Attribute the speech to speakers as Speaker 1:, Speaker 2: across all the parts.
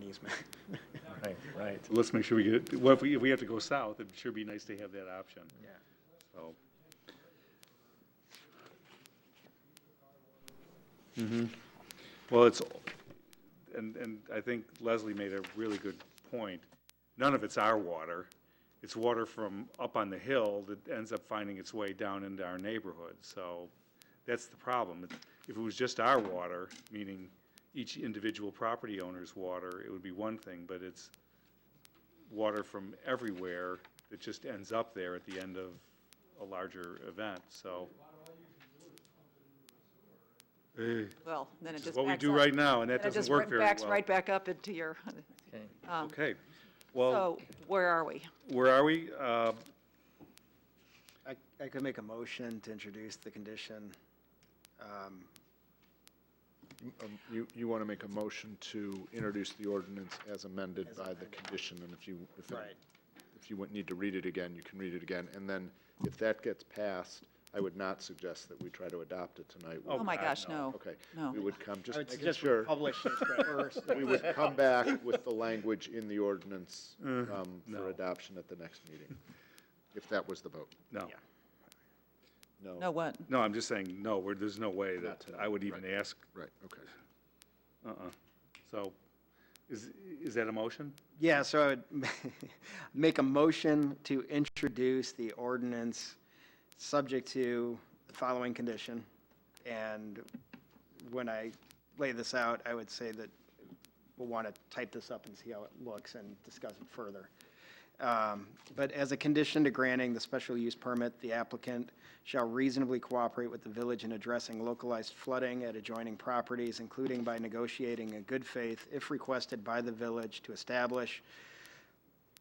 Speaker 1: easement.
Speaker 2: Right, right.
Speaker 3: Let's make sure we get, well, if we, if we have to go south, it'd sure be nice to have that option,
Speaker 1: Yeah.
Speaker 3: so. Well, it's, and, and I think Leslie made a really good point. None of it's our water. It's water from up on the hill that ends up finding its way down into our neighborhood. So that's the problem. If it was just our water, meaning each individual property owner's water, it would be one thing, but it's water from everywhere that just ends up there at the end of a larger event, so. Eh.
Speaker 4: Well, then it
Speaker 3: Which is
Speaker 4: just
Speaker 3: what we
Speaker 4: backs
Speaker 3: do
Speaker 4: up.
Speaker 3: right now, and
Speaker 4: Then
Speaker 3: that
Speaker 4: it
Speaker 3: doesn't
Speaker 4: just
Speaker 3: work
Speaker 4: right-
Speaker 3: very
Speaker 4: Backs
Speaker 3: well.
Speaker 4: right back up into your,
Speaker 2: Okay.
Speaker 4: um,
Speaker 3: Okay, well,
Speaker 4: so where are we?
Speaker 3: where are we? Uh,
Speaker 1: I, I could make a motion to introduce the condition. um,
Speaker 5: Um, You, you want to make a motion to introduce the ordinance as amended
Speaker 1: As
Speaker 5: by the
Speaker 1: amended.
Speaker 5: condition, and if you, if, it-
Speaker 1: Right.
Speaker 5: if you would need to read it again, you can read it again. And then if that gets passed, I would not suggest that we try to adopt it tonight. We-
Speaker 4: Oh, my
Speaker 3: God,
Speaker 4: gosh, no.
Speaker 5: Okay.
Speaker 4: No.
Speaker 5: We would come,
Speaker 1: I
Speaker 5: just
Speaker 1: would
Speaker 5: making
Speaker 1: suggest we
Speaker 5: sure,
Speaker 1: publish it first.
Speaker 5: we would come back with the language in the ordinance um,
Speaker 3: no.
Speaker 5: for adoption at the next meeting, if that was the vote.
Speaker 3: No,
Speaker 1: Yeah.
Speaker 5: No.
Speaker 4: No, what?
Speaker 3: no, I'm just saying, no, we're, there's no way that
Speaker 5: Not tonight,
Speaker 3: I would even
Speaker 5: right.
Speaker 3: ask,
Speaker 5: Right, okay.
Speaker 3: uh-uh. So, is, is that a motion?
Speaker 1: Yeah, so I would make a motion to introduce the ordinance subject to the following condition. And when I lay this out, I would say that we'll want to type this up and see how it looks and discuss it further. Um, But as a condition to granting the special use permit, the applicant shall reasonably cooperate with the village in addressing localized flooding at adjoining properties, including by negotiating in good faith, if requested by the village, to establish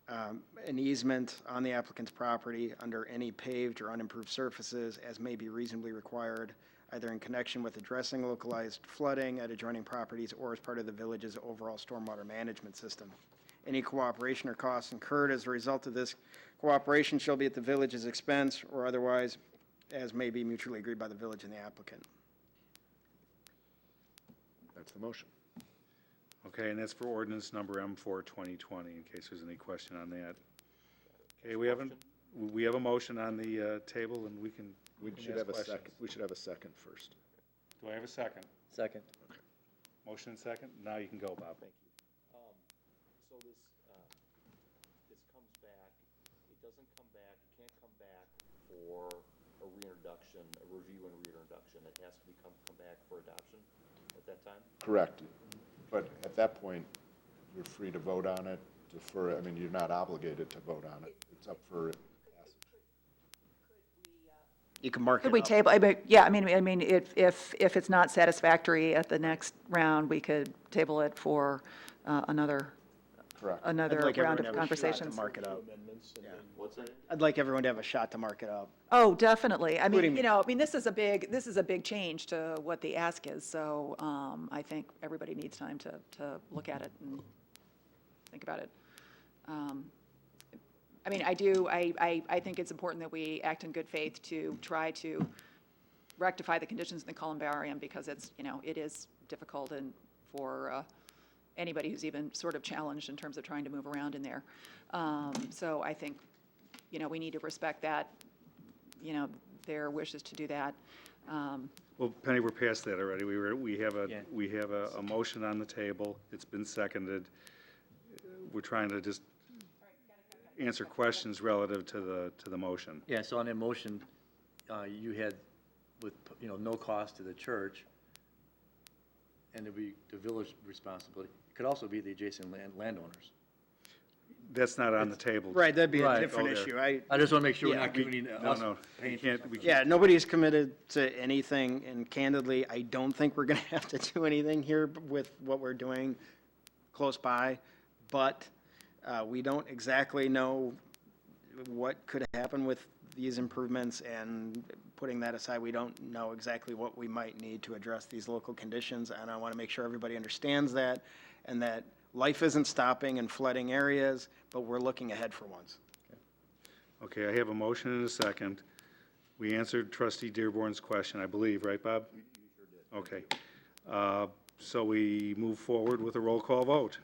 Speaker 1: um, an easement on the applicant's property under any paved or unimproved surfaces as may be reasonably required, either in connection with addressing localized flooding at adjoining properties or as part of the village's overall stormwater management system. Any cooperation or costs incurred as a result of this cooperation shall be at the village's expense or otherwise as may be mutually agreed by the village and the applicant.
Speaker 5: That's the motion.
Speaker 3: Okay, and that's for ordinance number M four twenty twenty, in case there's any question on that. Okay, we haven't, we have a motion on the, uh, table, and we can, we
Speaker 5: We
Speaker 3: can
Speaker 5: should
Speaker 3: ask
Speaker 5: have a
Speaker 3: questions.
Speaker 5: second, we should have a second first.
Speaker 3: Do I have a second?
Speaker 2: Second.
Speaker 3: Motion and second? Now you can go, Bob.
Speaker 6: Um, so this, uh, this comes back, it doesn't come back, it can't come back for a reintroduction, a review and reintroduction. It has to become, come back for adoption at that time?
Speaker 5: Correct. But at that point, you're free to vote on it, defer, it. I mean, you're not obligated to vote on it. It's up for,
Speaker 1: You can mark it
Speaker 4: Could we
Speaker 1: up.
Speaker 4: table, I mean, yeah, I mean, I mean, if, if, if it's not satisfactory at the next round, we could table it for uh, another,
Speaker 5: correct.
Speaker 1: I'd
Speaker 4: another
Speaker 1: like everyone
Speaker 4: round
Speaker 1: to
Speaker 4: of
Speaker 1: have a shot to
Speaker 4: conversations.
Speaker 1: Mark it up.
Speaker 6: What's that?
Speaker 1: I'd like everyone to have a shot to mark it up.
Speaker 4: Oh, definitely. I
Speaker 1: Including
Speaker 4: mean,
Speaker 1: me.
Speaker 4: you know, I mean, this is a big, this is a big change to what the ask is, so um, I think everybody needs time to, to look at it and think about it. Um, I mean, I do, I, I, I think it's important that we act in good faith to try to rectify the conditions in the columbarium, because it's, you know, it is difficult and for uh, anybody who's even sort of challenged in terms of trying to move around in there. Um, So I think, you know, we need to respect that, you know, their wishes to do that. Um,
Speaker 3: Well, Penny, we're past that already. We were, we have a,
Speaker 2: Yeah.
Speaker 3: we have a, a motion on the table. It's been seconded. We're trying to just answer questions relative to the, to the motion.
Speaker 2: Yeah, so on that motion, uh, you had with, you know, no cost to the church, and it'd be the village responsibility. It could also be the adjacent land landowners.
Speaker 3: That's not on the table.
Speaker 1: Right, that'd be a
Speaker 2: Right.
Speaker 1: different
Speaker 3: Go there.
Speaker 1: issue. I,
Speaker 2: I just want to make sure we're
Speaker 1: Yeah,
Speaker 2: not giving uh,
Speaker 3: No,
Speaker 2: us
Speaker 3: no, we
Speaker 2: pain.
Speaker 3: can't, we can't.
Speaker 1: Yeah, nobody's committed to anything, and candidly, I don't think we're gonna have to do anything here with what we're doing close by, but uh, we don't exactly know what could happen with these improvements, and putting that aside, we don't know exactly what we might need to address these local conditions, and I want to make sure everybody understands that, and that life isn't stopping in flooding areas, but we're looking ahead for once.
Speaker 3: Okay, I have a motion and a second. We answered trustee Dearborn's question, I believe, right, Bob? Okay. Uh, So we move forward with a roll call vote.